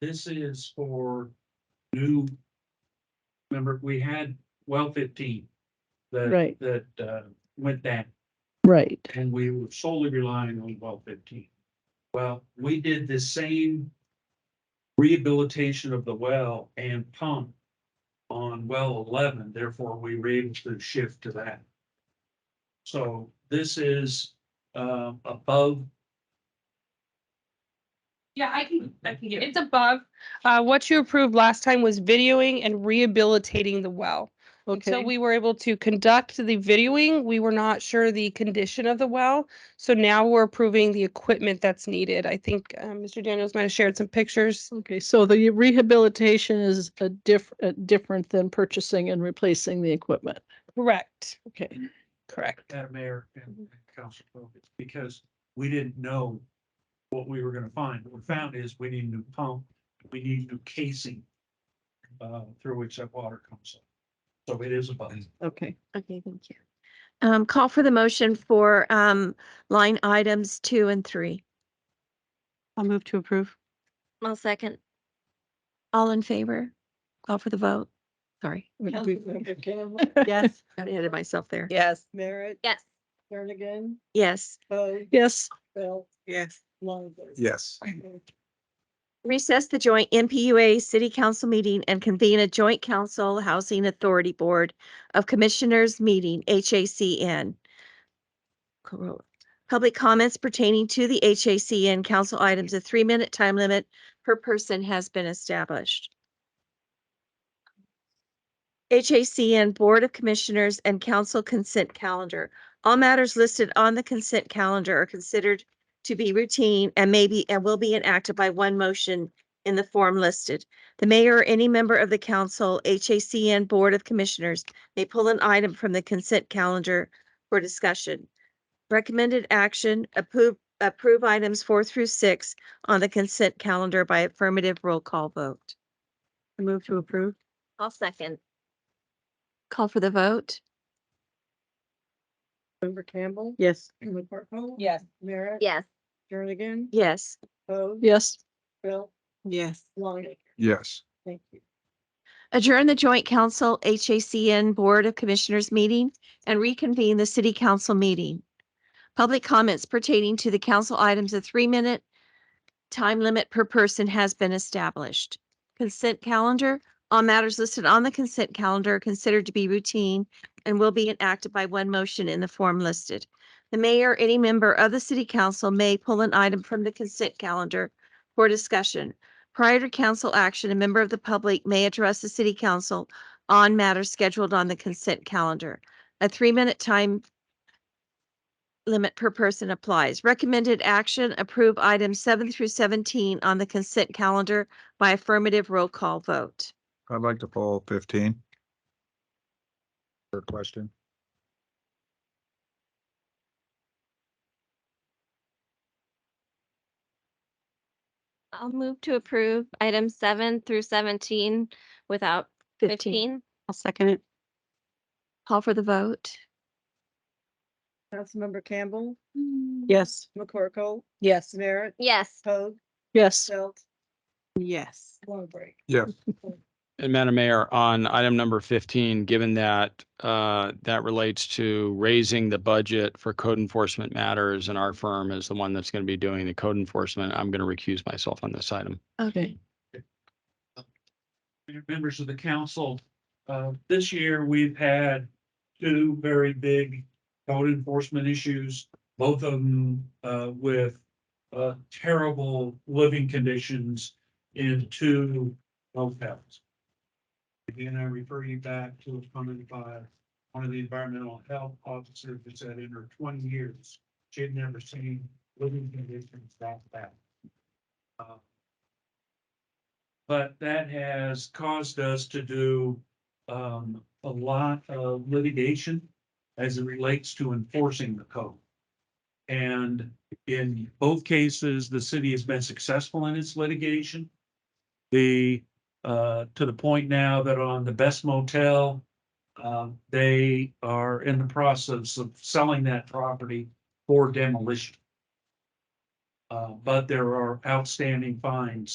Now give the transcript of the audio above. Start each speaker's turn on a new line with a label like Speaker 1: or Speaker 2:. Speaker 1: This is for new. Remember, we had well fifteen. That,
Speaker 2: Right.
Speaker 1: that, uh, went down
Speaker 2: right.
Speaker 1: and we were solely relying on well fifteen. Well, we did the same rehabilitation of the well and pump on well eleven, therefore we were able to shift to that. So this is, uh, above
Speaker 3: Yeah, I can, I can get, it's above. Uh, what you approved last time was videoing and rehabilitating the well. Until
Speaker 2: Okay,
Speaker 3: we were able to conduct the videoing, we were not sure the condition of the well. So now we're approving the equipment that's needed. I think, uh, Mr. Daniels might have shared some pictures.
Speaker 2: okay, so the rehabilitation is a diff, uh, different than purchasing and replacing the equipment.
Speaker 3: Correct,
Speaker 2: Okay,
Speaker 3: correct.
Speaker 1: Madam Mayor and and Council Fogan, because we didn't know what we were gonna find. What we found is we need a new pump, we need new casing uh, through which that water comes up. So it is a button.
Speaker 2: okay.
Speaker 4: Okay, thank you. Um, call for the motion for, um, line items two and three.
Speaker 5: I'll move to approve.
Speaker 4: I'll second. All in favor? Call for the vote. Sorry,
Speaker 5: Yes.
Speaker 4: got ahead of myself there.
Speaker 5: Yes.
Speaker 6: Merritt,
Speaker 4: Yes.
Speaker 6: Jernigan,
Speaker 4: Yes.
Speaker 6: Poe,
Speaker 2: Yes,
Speaker 6: Belt,
Speaker 5: Yes.
Speaker 6: Longo.
Speaker 7: Yes.
Speaker 4: Recess the joint NPUA City Council meeting and convene a joint council housing authority board of commissioners meeting, HACN. Cor- Public comments pertaining to the HACN council items, a three-minute time limit per person has been established. HACN Board of Commissioners and Council Consent Calendar. All matters listed on the consent calendar are considered to be routine and may be and will be enacted by one motion in the form listed. The mayor or any member of the council, HACN Board of Commissioners may pull an item from the consent calendar for discussion. Recommended action, approve, approve items four through six on the consent calendar by affirmative roll call vote.
Speaker 5: I move to approve.
Speaker 4: I'll second. Call for the vote?
Speaker 6: Member Campbell.
Speaker 5: Yes.
Speaker 6: Member Parkholt.
Speaker 5: Yes.
Speaker 6: Merritt.
Speaker 4: Yes.
Speaker 6: Jernigan.
Speaker 4: Yes.
Speaker 6: Poe.
Speaker 2: yes,
Speaker 6: Belt,
Speaker 5: Yes.
Speaker 6: Longo.
Speaker 7: Yes.
Speaker 6: Thank you.
Speaker 4: Adjourn the Joint Council HACN Board of Commissioners meeting and reconvene the City Council meeting. Public comments pertaining to the council items, a three-minute time limit per person has been established. Consent calendar, all matters listed on the consent calendar are considered to be routine and will be enacted by one motion in the form listed. The mayor, or any member of the city council may pull an item from the consent calendar for discussion. Prior to council action, a member of the public may address the city council on matters scheduled on the consent calendar. A three-minute time limit per person applies. Recommended action, approve items seven through seventeen on the consent calendar by affirmative roll call vote.
Speaker 7: I'd like to poll fifteen. For a question.
Speaker 8: I'll move to approve items seven through seventeen without fifteen.
Speaker 5: I'll second it.
Speaker 4: Call for the vote?
Speaker 6: Councilmember Campbell,
Speaker 2: yes,
Speaker 6: McCorkle,
Speaker 5: Yes.
Speaker 6: Merritt,
Speaker 8: Yes,
Speaker 6: Poe,
Speaker 2: yes,
Speaker 6: Belt,
Speaker 5: Yes.
Speaker 6: Longbridge.
Speaker 7: Yes.
Speaker 9: And Madam Mayor, on item number fifteen, given that uh, that relates to raising the budget for code enforcement matters and our firm is the one that's going to be doing the code enforcement, I'm going to recuse myself on this item.
Speaker 2: okay.
Speaker 1: Members of the council, uh, this year we've had two very big code enforcement issues, both of them uh, with uh, terrible living conditions in two hotels. Again, I refer you back to a comment by one of the environmental health officers that said in her twenty years, she had never seen living conditions that bad. Uh, But that has caused us to do um, a lot of litigation as it relates to enforcing the code. And in both cases, the city has been successful in its litigation. The, uh, to the point now that on the best motel, um, they are in the process of selling that property for demolition. Uh, but there are outstanding fines